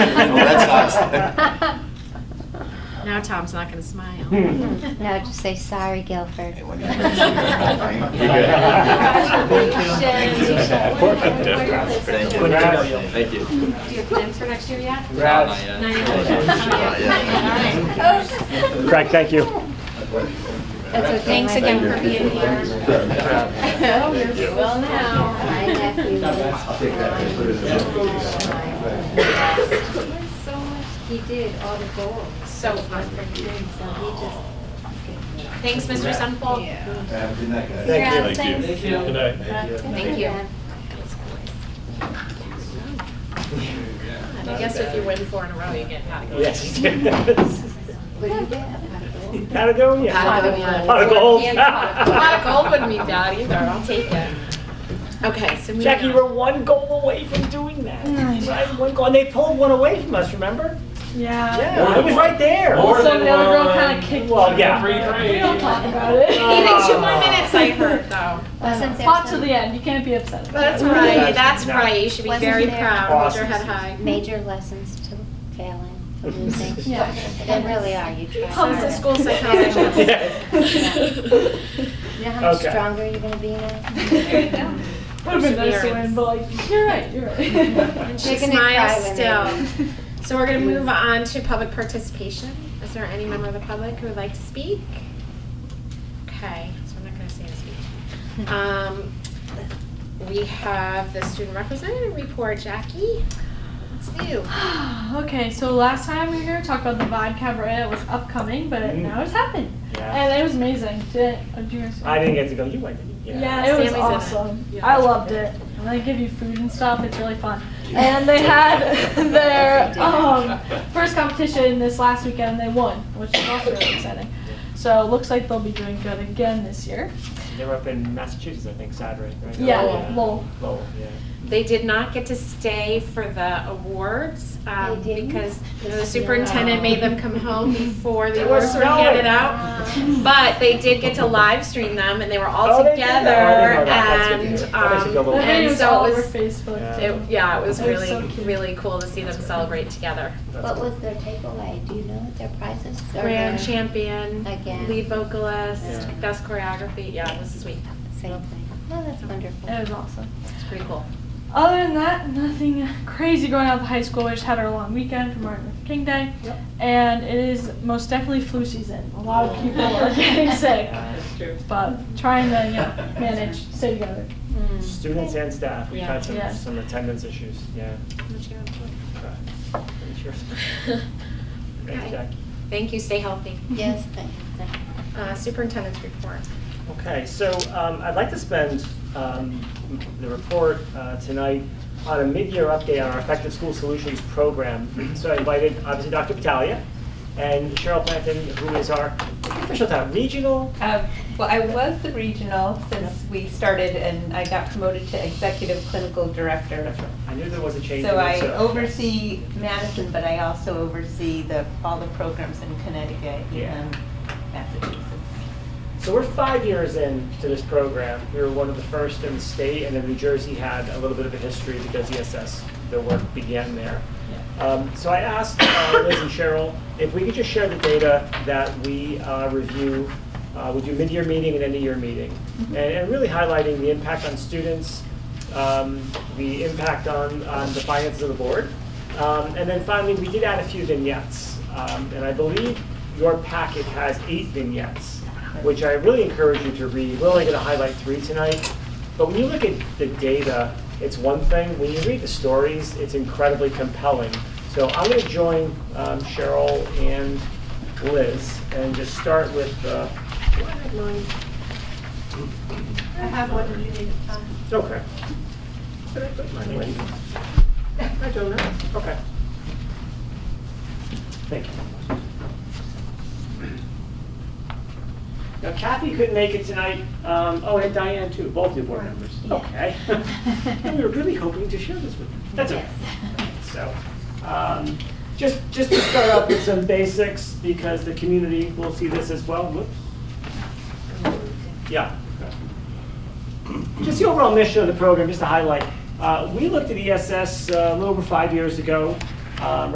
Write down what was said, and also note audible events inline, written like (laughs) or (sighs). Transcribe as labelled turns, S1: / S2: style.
S1: (laughs)
S2: Now Tom's not gonna smile.
S1: No, just say, sorry, Guilford.
S3: Hey, what do you
S2: (laughs)
S4: Of course.
S3: Thank you. Thank you.
S5: Do you have plans for next year yet?
S4: Congrats.
S3: Not
S5: Not
S3: yet.
S5: yet.
S3: Not yet.
S4: Craig, thank you.
S1: That's
S5: Thanks again for being here. Oh, you're well
S1: My nephew
S5: now.
S1: So much, he did all the goals.
S2: So fun.
S1: So he just.
S2: Thanks, Mr. Sunfall.
S5: Congrats,
S1: Thank
S5: thanks.
S6: Good night.
S2: Thank you. I guess if you win four in a row, you get category.
S4: Yes.
S1: What do you get? A goal?
S4: Patagonia.
S2: Pot of gold.
S4: Pot of gold.
S2: And pot of- pot of gold wouldn't be bad either, I'll take it. Okay, so moving
S4: Jackie,
S2: on.
S4: we're one goal away from doing that. Right, one goal, and they pulled one away from us, remember?
S7: Yeah.
S4: Yeah, I was right there. (laughs)
S6: More
S7: So
S6: than
S7: the other girl
S6: one.
S7: kind of kicked
S4: Well,
S7: me.
S4: yeah.
S6: Three, three.
S7: We don't talk
S4: (laughs)
S7: about it.
S2: Needing two more minutes, I heard, though.
S1: Wasn't there
S7: Fought to
S1: some-
S7: the end. You can't be upset.
S2: That's
S4: Yeah.
S2: right, that's
S4: No.
S2: right, you should be
S1: Wasn't
S2: very
S1: there-
S2: proud, hold your head
S4: Awesome.
S2: high.
S1: Major lessons to failing, to
S2: (laughs)
S1: losing.
S7: Yeah.
S1: There really are, you try
S2: Comes
S1: harder.
S2: the
S1: (laughs)
S2: school psychologist. (laughs)
S1: You know how much
S4: Okay.
S1: stronger you're gonna be now?
S2: There you go.
S7: Would have been nice to win, but like, you're right. You're right.
S2: (laughs) And she
S1: They're gonna cry
S2: smiles
S1: when
S2: still. So we're gonna move on to public participation. Is there any member of the public who would like to speak? Okay, so I'm not gonna say a
S1: (laughs)
S2: speech. Um, we have the student representative report, Jackie. What's new?
S7: (sighs) okay, so last time we were going to talk about the VOD cabaret. It was upcoming, but
S4: Mm.
S7: now it's happened.
S4: Yeah.
S7: And it was amazing. Did, oh, do you wanna say-
S4: I didn't get to go, you went, didn't you?
S7: Yeah,
S2: Sammy's
S7: it
S2: in
S7: was
S2: it.
S7: awesome.
S2: Yeah.
S7: I loved it. And they give you food and stuff. It's really fun. And they had (laughs) their um, first competition this last weekend. They won, which is also really exciting. So it looks like they'll be doing good again this year.
S4: They were up in Massachusetts, I think, Saturday, right?
S7: Yeah,
S4: Lowell.
S7: Lowell.
S4: Lowell, yeah.
S2: They did not get to stay for the awards um,
S1: They didn't?
S2: because you know, the
S1: No.
S2: superintendent made them
S1: (laughs)
S2: come home before the
S4: It
S2: awards
S4: was
S2: were handed
S4: snowing.
S2: out. But they did get to live stream them and they were all
S4: Oh, they did? Oh, I
S2: together
S4: didn't know that. That's good to
S2: and
S4: hear. That makes it feel a
S2: um,
S4: little
S7: The video
S2: and
S7: was
S2: so
S7: all
S2: it
S7: over
S2: was
S7: Facebook.
S4: Yeah.
S2: it, yeah, it was
S7: It was
S2: really
S7: so cute.
S2: really cool to see them celebrate together.
S4: That's
S1: What
S4: cool.
S1: was their takeaway? Do you know what their prizes or
S2: Grand
S1: their-
S2: champion,
S1: Again.
S2: lead vocalist,
S4: Yeah.
S2: best choreography. Yeah, it was sweet.
S1: Same thing. Oh, that's wonderful.
S7: It was awesome.
S2: It's pretty cool.
S7: Other than that, nothing crazy going on at the high school. We just had our long weekend for Martin Luther King Day.
S4: Yep.
S7: And it is most definitely flu season. A lot of people are (laughs) getting sick,
S4: Yeah.
S7: but trying to you know, manage, stay together.
S4: Students and staff, we've
S2: Yeah.
S4: had some,
S7: Yeah.
S4: some attendance issues, yeah.
S2: What you got
S4: Right. Pretty sure.
S2: for?
S4: Thank you,
S2: Okay.
S4: Jackie.
S2: Thank you. Stay healthy.
S1: Yes, thank you.
S2: Uh, superintendent's report.
S4: Okay, so um, I'd like to spend um, the report uh, tonight on a mid-year update on our Effective School Solutions program. So I invited, obviously, Dr. Battaglia and Cheryl Planton, who is our official town regional.
S8: Um, Well, I was the regional since we started and I got promoted to executive clinical director.
S4: I knew there was a change.
S8: So
S4: in it,
S8: I oversee Madison, but I also oversee the, all the programs in Connecticut
S4: Yeah.
S8: and Massachusetts.
S4: So we're five years into this program. We were one of the first in the state, and then New Jersey had a little bit of a history because ESS, the work began there. Um, So I asked uh, Liz and Cheryl if we could just share the data that we uh, review, uh, we do mid-year meeting and end-of-year meeting, and and really highlighting the impact on students, um, the impact on, on the finances of the board. Um, And then finally, we did add a few vignettes, Um, and I believe your packet has eight vignettes which I really encourage you to read. We're only going to highlight three tonight, but when you look at the data, it's one thing. When you read the stories, it's incredibly compelling. So I'm going to join um, Cheryl and Liz and just start with uh, the. do I have mine?
S5: I have one you need to sign.
S4: Okay. Did I put mine away? I don't know. Okay. Thank you. Now Kathy couldn't make it tonight, um, oh, and Diane too, both the board members.
S1: Yeah. (laughs)
S4: Okay. And we were really hoping to share this with you. (laughs) That's okay. So, um, just, just to start off with some basics, because the community will see this as well, whoops. Yeah. Just the overall mission of E the program, just to highlight, uh, we looked at ESS uh, a little over five years ago, um,